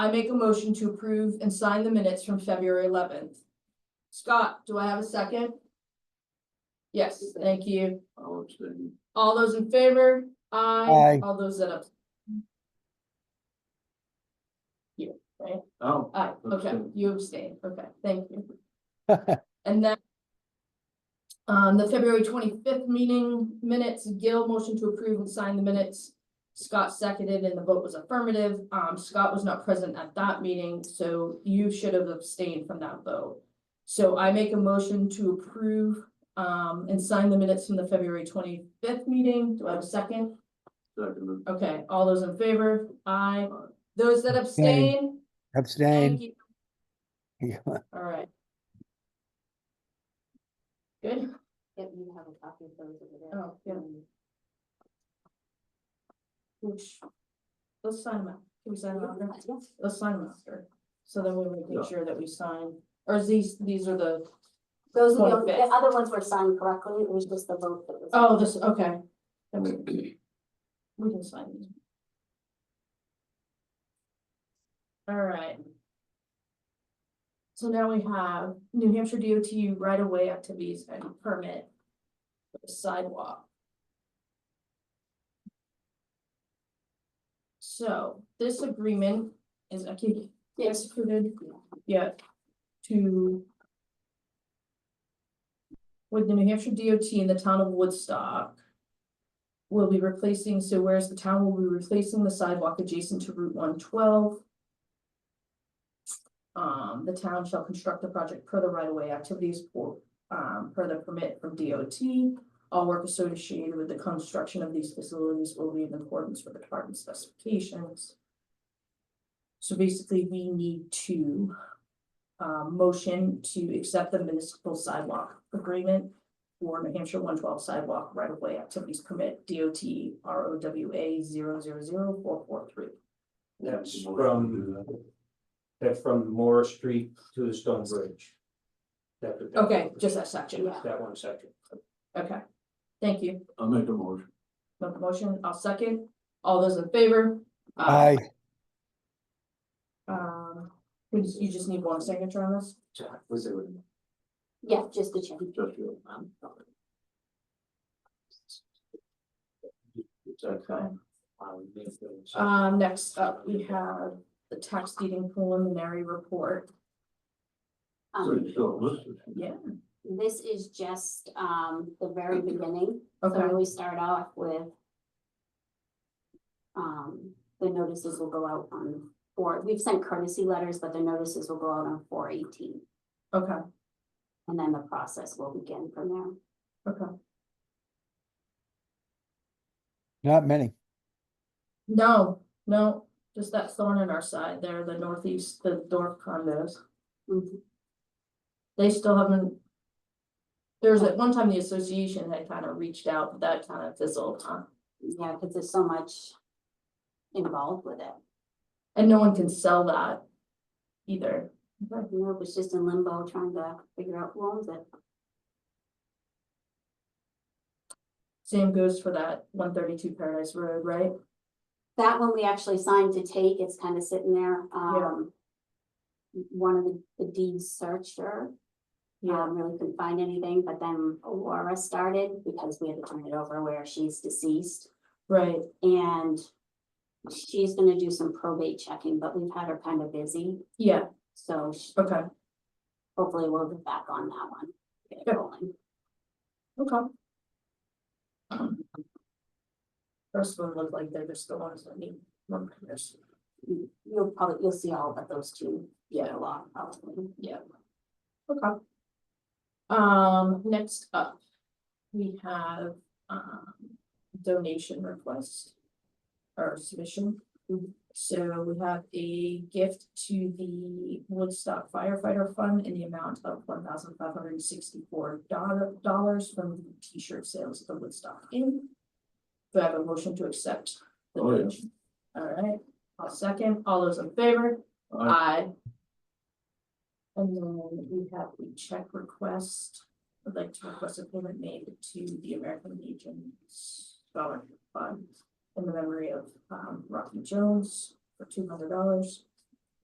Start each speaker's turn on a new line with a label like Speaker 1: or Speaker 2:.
Speaker 1: I make a motion to approve and sign the minutes from February eleventh. Scott, do I have a second? Yes, thank you.
Speaker 2: I'll abstain.
Speaker 1: All those in favor? Aye.
Speaker 3: Aye.
Speaker 1: All those that abstain. You, right?
Speaker 2: Oh,
Speaker 1: Aye, okay,
Speaker 2: Abstain.
Speaker 1: you abstain, okay, thank you. And then. Um, the February twenty-fifth meeting minutes, Gil motion to approve and sign the minutes. Scott seconded and the vote was affirmative. Um, Scott was not present at that meeting, so you should have abstained from that vote. So I make a motion to approve, um, and sign the minutes from the February twenty-fifth meeting. Do I have a second?
Speaker 2: second,
Speaker 1: Okay, all those in favor? Aye.
Speaker 2: Aye.
Speaker 1: Those that abstain? Thank
Speaker 3: Abstain.
Speaker 1: you.
Speaker 3: Yeah.
Speaker 1: All right. Good,
Speaker 4: If you have a copy of those over there.
Speaker 1: oh, yeah, which, let's sign them out, can we sign them out?
Speaker 4: Yeah.
Speaker 1: Let's sign them after, so then we make sure that we sign, or these, these are the,
Speaker 4: Those are the,
Speaker 1: Okay.
Speaker 4: the other ones were signed correctly, it was just the vote that was.
Speaker 1: oh, this, okay. Okay. We can sign these. All right. So now we have New Hampshire DOT right-of-way activities and permit for the sidewalk. So this agreement is actually executed yet to with the New Hampshire DOT in the town of Woodstock will be replacing, so whereas the town will be replacing the sidewalk adjacent to Route one twelve. Um, the town shall construct the project per the right-of-way activities or, um, per the permit from DOT. All work associated with the construction of these facilities will be in accordance with the department specifications. So basically, we need to, um, motion to accept the municipal sidewalk agreement for New Hampshire one twelve sidewalk right of way activities permit DOT R O W A zero zero zero four four three.
Speaker 5: That's from, that's from Morris Street to the Stone Bridge. That- that-
Speaker 1: Okay, just that section,
Speaker 4: Yeah.
Speaker 5: That one section.
Speaker 1: okay. Thank you.
Speaker 2: I'll make a motion.
Speaker 1: Mo- Motion, I'll second. All those in favor?
Speaker 3: Aye.
Speaker 1: Um, we just- you just need one signature on this?
Speaker 2: Was it?
Speaker 4: Yeah, just the change.
Speaker 2: Just you.
Speaker 1: Um,
Speaker 2: It's okay.
Speaker 1: Um, next up, we have the tax deeding preliminary report.
Speaker 2: So
Speaker 4: Um,
Speaker 2: it's all listed.
Speaker 1: Yeah,
Speaker 4: this is just, um, the very beginning,
Speaker 1: okay,
Speaker 4: so we start off with. Um, the notices will go out on four, we've sent courtesy letters, but the notices will go out on four eighteen,
Speaker 1: okay,
Speaker 4: and then the process will begin from there.
Speaker 1: okay.
Speaker 3: Not many.
Speaker 1: No, no, just that thorn in our side there, the northeast, the Dorf condos. Mm-hmm.
Speaker 4: Mhm.
Speaker 1: they still haven't. There was at one time the association had kind of reached out, but that kind of fizzled, huh?
Speaker 4: Yeah, because there's so much involved with it.
Speaker 1: And no one can sell that either.
Speaker 4: You know, it was just in limbo trying to figure out who owns it.
Speaker 1: Same goes for that one thirty-two Paradise Road, right?
Speaker 4: That one we actually signed to take, it's kind of sitting there, um. One of the- the deed searcher, um, really couldn't find anything, but then Laura started because we had to turn it over where she's deceased.
Speaker 1: Right,
Speaker 4: And she's gonna do some probate checking, but we've had her kind of busy,
Speaker 1: yeah,
Speaker 4: so sh-
Speaker 1: okay,
Speaker 4: hopefully we'll get back on that one. Get it
Speaker 1: Yep.
Speaker 4: rolling.
Speaker 1: okay. First one looked like they're just the ones that need one person.
Speaker 4: You- You'll probably, you'll see all of those two get
Speaker 1: Yeah.
Speaker 4: along probably.
Speaker 1: Okay. Um, next up, we have, um, donation request or submission.
Speaker 4: Mhm.
Speaker 1: So we have a gift to the Woodstock firefighter fund in the amount of one thousand five hundred and sixty-four dollars from the t-shirt sales at the Woodstock Inn. Do I have a motion to accept? the
Speaker 2: Oh, yeah.
Speaker 1: donation? All right, I'll second. All those in favor?
Speaker 2: I
Speaker 1: Aye. And then we have the check request, I'd like to request a payment made to the American Legion Scholarship Fund in the memory of um Rocky Jones for two hundred dollars.